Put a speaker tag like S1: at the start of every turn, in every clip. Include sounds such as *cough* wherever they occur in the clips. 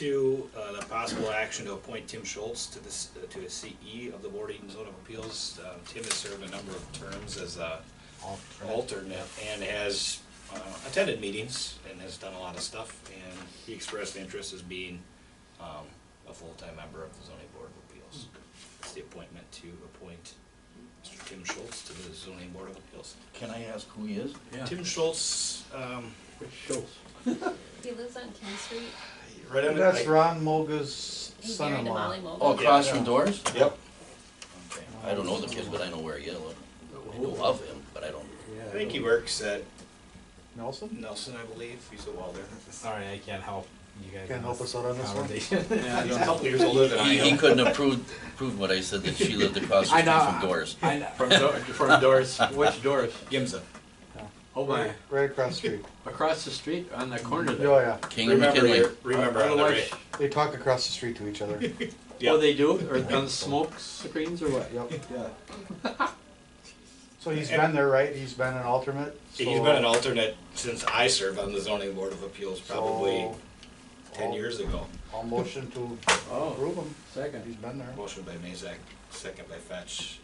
S1: two, uh, the possible action to appoint Tim Schultz to this, uh, to a CE of the Board of Eden Zone of Appeals. Um, Tim has served a number of terms as a alternate and has uh, attended meetings and has done a lot of stuff. And he expressed interest as being um, a full-time member of the zoning board of appeals.
S2: Hmm.
S1: It's the appointment to appoint Mr. Tim Schultz to the zoning board of appeals.
S2: Can I ask who he is?
S1: Tim Schultz, um,
S3: Schultz.
S4: He lives on King Street.
S1: right on the.
S5: That's
S1: I-
S5: Ron Moga's
S4: He's married to
S5: son-in-law.
S4: Molly Mogul.
S2: Oh, across from Doors?
S1: Yep.
S2: Okay. I don't know the kid, but I know where he is. I know of him, but I don't.
S1: I think he works at
S5: Nelson?
S1: Nelson, I believe. He's a welder.
S6: Sorry, I can't help you guys.
S5: Can't
S6: on
S5: help us out on this one?
S6: conversation.
S1: He's a couple years older than I
S2: He, he
S1: am.
S2: couldn't approve, prove what I said, that she lived across the
S6: I
S2: street
S6: know.
S2: from Doors.
S6: I know.
S3: From Dor- from Doris, which Doris?
S1: Gimza.
S3: Oh my,
S5: *laughs* Right across the
S2: *laughs*
S5: street.
S3: across the street on the corner
S5: Oh,
S3: there.
S5: yeah.
S2: King and
S1: Remember,
S2: McKinley.
S1: your- remember on the
S3: Otherwise-
S1: right.
S5: They talk across the street to each
S2: *laughs*
S5: other. Yep.
S1: Yeah.
S3: Oh, they do, or on the smoke screens or what?
S5: So he's been there, right? He's been an alternate?
S1: He's
S5: so-
S1: been an alternate since I served on the zoning board of appeals probably
S5: so
S1: ten
S5: I'll-
S1: years ago.
S5: I'll motion to
S3: Oh,
S5: approve him. He's
S3: second.
S5: been there.
S1: Motion by Mazak, second by Fetch.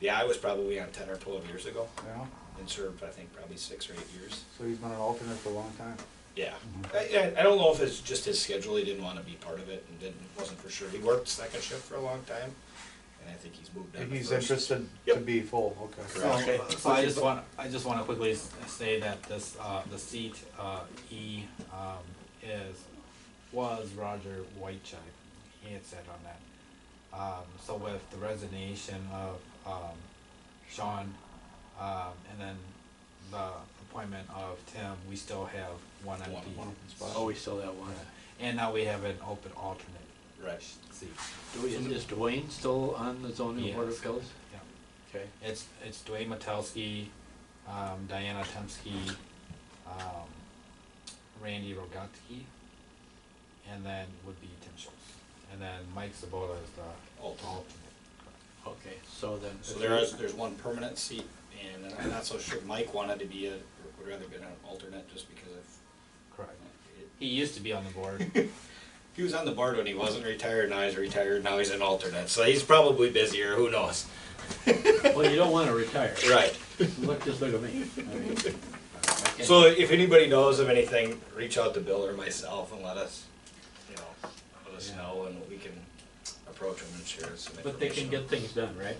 S1: Yeah, I was probably on ten or twelve years ago
S5: Yeah.
S1: and served, I think, probably six or eight years.
S5: So he's been an alternate for a long time.
S1: Yeah.
S5: Mm-hmm.
S1: I, I I don't know if it's just his schedule, he didn't wanna be part of it and didn't, wasn't for sure. He worked second shift for a long time and I think he's moved on to
S5: He's
S1: first.
S5: interested to be full, okay.
S1: Correct.
S6: So, so I just want, I just wanna quickly s- say that this, uh, the seat, uh, E, um, is, was Roger Whitechuck. He had said on that. Um, so with the resignation of, um, Sean, um, and then the appointment of Tim, we still have one
S1: One-
S6: empty
S1: one
S3: Oh,
S6: spot.
S3: we still have one.
S6: And now we have an open alternate
S1: Right.
S6: seat.
S3: Do we- Is Dwayne still on the zoning board of
S6: Yes.
S3: appeals?
S6: Yeah.
S3: Okay.
S6: It's it's Dwayne Metelsky, um, Diana Temsky, um, Randy Rogatki, and then would be Tim Schultz. And then Mike Sabota is the
S1: Alternate.
S6: alternate.
S3: Okay, so then.
S1: So there is, there's one permanent seat, and I'm not so sure Mike wanted to be a, would rather been an alternate just because of,
S6: Correct.
S1: it-
S6: He used to be on the board.
S1: he was on the board when he wasn't retired, now he's retired, now he's an alternate, so he's probably busier, who knows?
S3: Well, you don't wanna retire.
S1: Right.
S3: Look, just look at me. I mean, I
S1: So if anybody knows of anything, reach out to Bill or myself and let us, you know, let us
S3: Yeah.
S1: know and we can approach them and share some information.
S7: But they can get things done, right?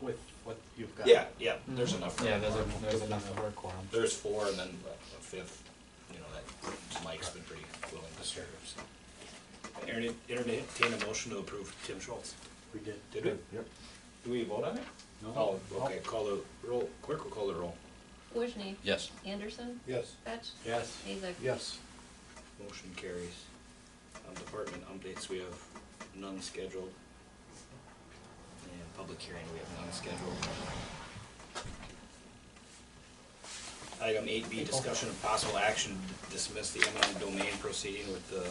S7: With what you've got.
S1: Yeah, yeah, there's enough. for
S6: yeah, there's a,
S1: quorum.
S6: there's enough for a quorum.
S1: There's four and then a fifth, you know, that Mike's been pretty willing to serve, so. Aaron, entertain a motion to approve Tim Schultz.
S3: We did.
S1: Did we?
S5: Yep.
S1: Do we vote on it?
S3: No?
S1: Oh, okay, call the roll, clerk will call the roll.
S4: Wojni,
S2: Yes.
S4: Anderson,
S1: Yes.
S4: Fetch,
S3: Yes.
S4: Mazak.
S5: Yes.
S1: Motion carries. Um, Department updates, we have none scheduled. And public hearing, we have none scheduled. Item eight B, discussion of possible action to dismiss the eminent domain proceeding with the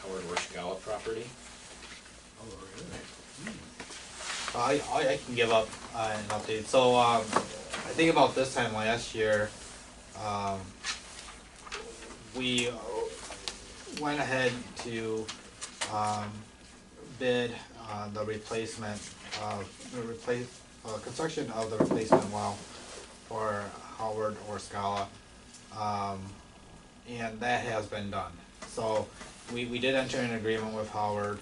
S1: Howard Rushgawa property.
S3: Oh,
S6: I, I, I can give up uh, an update. So um, I think about this time last year, um, we uh, went ahead to um, bid uh, the replacement of the replace uh, construction of the replacement well for Howard or Scala. Um, and that has been done. So we, we did enter an agreement with Howard,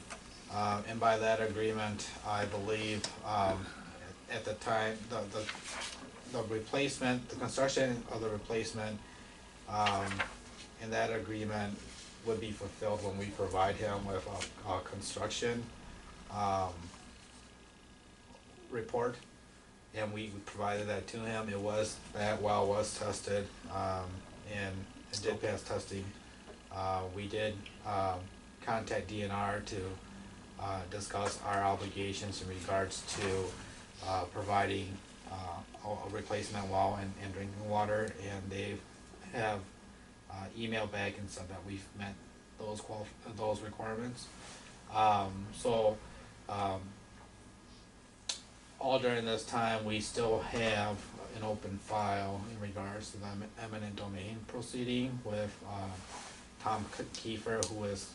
S6: um, and by that agreement, I believe, um, at the time, the, the, the replacement, the construction of the replacement, um, and that agreement would be fulfilled when we provide him with a, a construction, um, report, and we we provided that to him. It was, that well was tested, um, and it did pass testing. Uh, we did, um, contact DNR to, uh, discuss our obligations in regards to, uh, providing, uh, a a replacement well and, and drinking water, and they have, uh, emailed back and said that we've met those qual, those requirements. Um, so, um, all during this time, we still have an open file in regards to the eminent domain proceeding with, uh, Tom K- Kiefer, who is